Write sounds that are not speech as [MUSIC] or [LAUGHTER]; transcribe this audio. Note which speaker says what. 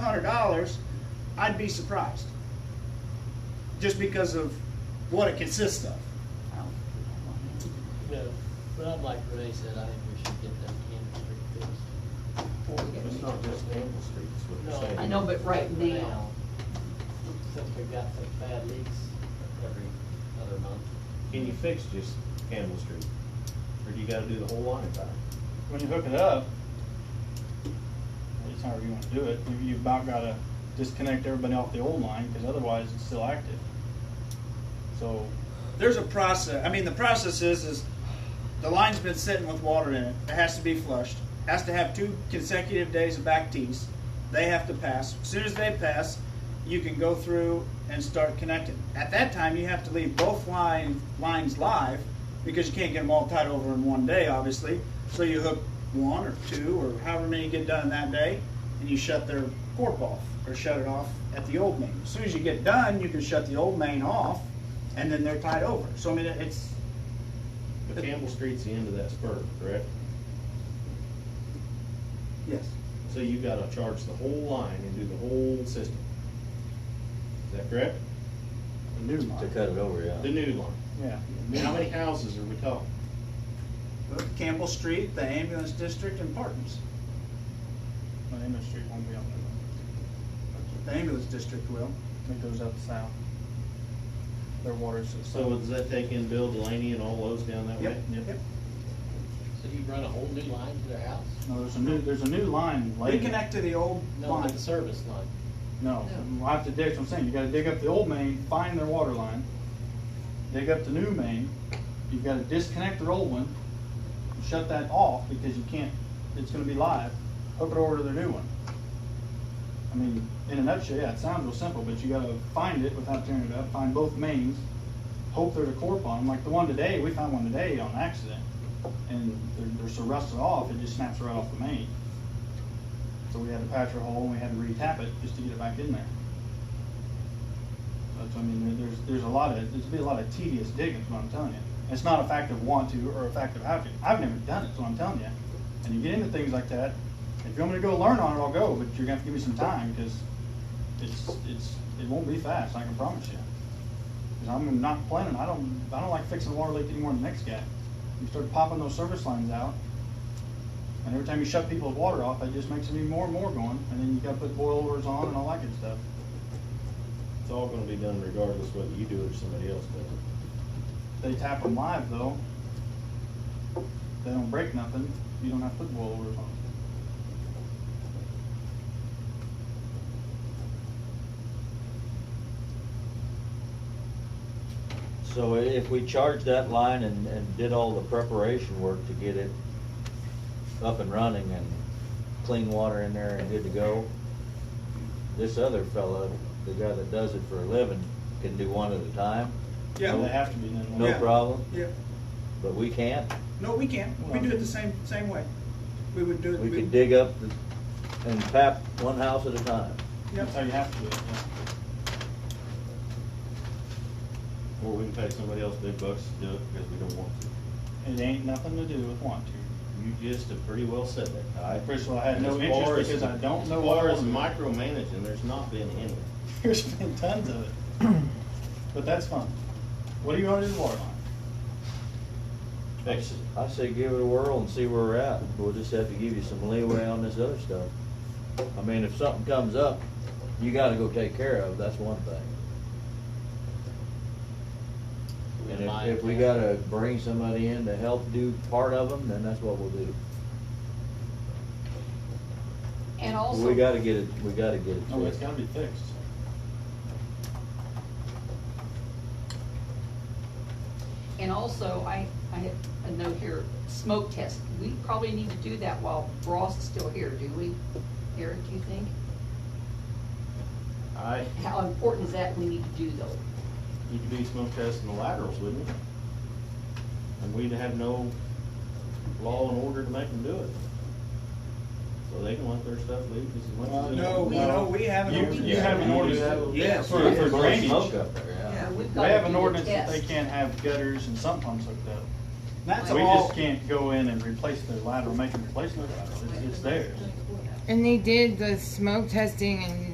Speaker 1: hundred dollars, I'd be surprised. Just because of what it consists of.
Speaker 2: I don't- I don't want it.
Speaker 3: No, but I'd like Renee said, I think we should get that Cannon Street fixed.
Speaker 4: It's not just Campbell Street, it's what
Speaker 3: No.
Speaker 4: you're saying.
Speaker 2: I know, but right now,
Speaker 3: Since we've got such bad leaks every other month.
Speaker 4: Can you fix just Campbell Street? Or do you gotta do the whole line back?
Speaker 5: when you hook it up, it's however you want to do it, you- you've about got to disconnect everybody off the old line, because otherwise it's still active. So,
Speaker 1: There's a process, I mean, the process is, is the line's been sitting with water in it, it has to be flushed, has to have two consecutive days of back tees, they have to pass. As Soon as they pass, you can go through and start connecting. At that time, you have to leave both line, lines live, because you can't get them all tied over in one day, obviously. So you hook one or two, or however many get done that day, and you shut their corp off, or shut it off at the old main. As soon as you get done, you can shut the old main off, and then they're tied over. So I mean, it's,
Speaker 4: But Campbell Street's the end of that spur, correct?
Speaker 1: yes.
Speaker 4: So you gotta charge the whole line and do the whole system. Is that correct?
Speaker 5: the new
Speaker 6: To
Speaker 5: line,
Speaker 6: cut it over, yeah.
Speaker 4: The new line.
Speaker 5: yeah.
Speaker 4: I mean, How many houses are we talking?
Speaker 1: Campbell Street, the ambulance district, and Parton's.
Speaker 5: My Emmett Street won't be on
Speaker 1: The
Speaker 5: there.
Speaker 1: ambulance district will.
Speaker 5: It goes up south. Their water's.
Speaker 4: So does that take in Bill Delaney and all those down that way?
Speaker 1: Yep, yep.
Speaker 3: So you run a whole new line to their house?
Speaker 5: No, there's a new, there's a new line laid.
Speaker 1: Reconnect to the old
Speaker 3: No,
Speaker 1: line.
Speaker 3: the service line.
Speaker 5: No,
Speaker 2: No.
Speaker 5: I have to dig, that's what I'm saying, you gotta dig up the old main, find their water line, dig up the new main, you've gotta disconnect their old one, shut that off, because you can't, it's gonna be live, hook it over to their new one. I mean, in a nutshell, yeah, it sounds real simple, but you gotta find it without tearing it up, find both mains, hope there's a corp on them, like the one today, we found one today on accident, and they're, they're so rusted off, it just snaps right off the main. So we had to patch our hole and we had to re-tap it just to get it back in there. That's, I mean, there- there's, there's a lot of, there's be a lot of tedious digging, is what I'm telling you. It's not a fact of want to or a fact of how to. I've never done it, is what I'm telling you. And you get into things like that, if you want me to go learn on it, I'll go, but you're gonna have to give me some time, because it's, it's, it won't be fast, I can promise you. Because I'm not planning, I don't, I don't like fixing a water leak anymore than the next guy. You start popping those service lines out, and every time you shut people's water off, that just makes them even more and more going, and then you gotta put boilers on and all that good stuff.
Speaker 4: It's all gonna be done regardless whether you do it or somebody else does it.
Speaker 5: They tap them live though. They don't break nothing, you don't have to put boilers on.
Speaker 6: So if we charged that line and, and did all the preparation work to get it up and running and clean water in there and good to go, this other fella, the guy that does it for a living, can do one at a time,
Speaker 1: Yeah.
Speaker 5: They have to be done.
Speaker 6: no
Speaker 1: Yeah.
Speaker 6: problem,
Speaker 1: Yeah,
Speaker 6: but we can't.
Speaker 1: no, we can't, we do it the same, same way. We would do it.
Speaker 6: We can dig up the- and tap one house at a time.
Speaker 1: Yep.
Speaker 5: That's how you have to do it,
Speaker 4: Or we can pay somebody else big bucks to do it because we don't want to.
Speaker 5: yeah. It ain't nothing to do with want to. [LAUGHS]
Speaker 4: You just have pretty well said that. I
Speaker 5: First of all, I had no
Speaker 4: As far
Speaker 5: interest
Speaker 4: as-
Speaker 5: because I don't know
Speaker 4: As
Speaker 5: what
Speaker 4: far
Speaker 5: was
Speaker 4: as micromanaging, there's not been any.
Speaker 5: There's been tons of
Speaker 6: [CLEARS THROAT]
Speaker 5: it. But that's fun. What do you want to do with water line?
Speaker 4: Fix it.
Speaker 6: I say give it a whirl and see where we're at. We'll just have to give you some leeway on this other stuff. I mean, if something comes up, you gotta go take care of, that's one thing. And if, if we gotta bring somebody in to help do part of them, then that's what we'll do.
Speaker 2: and
Speaker 6: We
Speaker 2: also,
Speaker 6: gotta get it, we gotta get it
Speaker 5: Oh, it's
Speaker 6: fixed.
Speaker 5: gotta be fixed.
Speaker 2: and also, I, I have a note here, smoke test. We probably need to do that while Ross is still here, do we? Eric, you think?
Speaker 4: I,
Speaker 2: How important is that we need to do though?
Speaker 4: you could do smoke tests in the laterals, wouldn't you? And we'd have no law and order to make them do it. So they can let their stuff leak as much as. they
Speaker 1: Uh, No,
Speaker 4: want.
Speaker 1: no, we haven't.
Speaker 5: You, you have an
Speaker 4: You
Speaker 5: ordinance.
Speaker 4: have-
Speaker 1: Yes.
Speaker 5: For, for
Speaker 6: Blow Smoke
Speaker 5: drainage.
Speaker 6: up there, yeah.
Speaker 2: We've
Speaker 5: They
Speaker 2: gotta
Speaker 5: have
Speaker 2: do
Speaker 5: an
Speaker 2: the
Speaker 5: ordinance that they
Speaker 2: test.
Speaker 5: can't have gutters and sump pumps hooked up.
Speaker 1: That's
Speaker 5: We
Speaker 1: all,
Speaker 5: just can't go in and replace their lateral, make them replace their lateral, it's, it's theirs.
Speaker 7: And they did the smoke testing and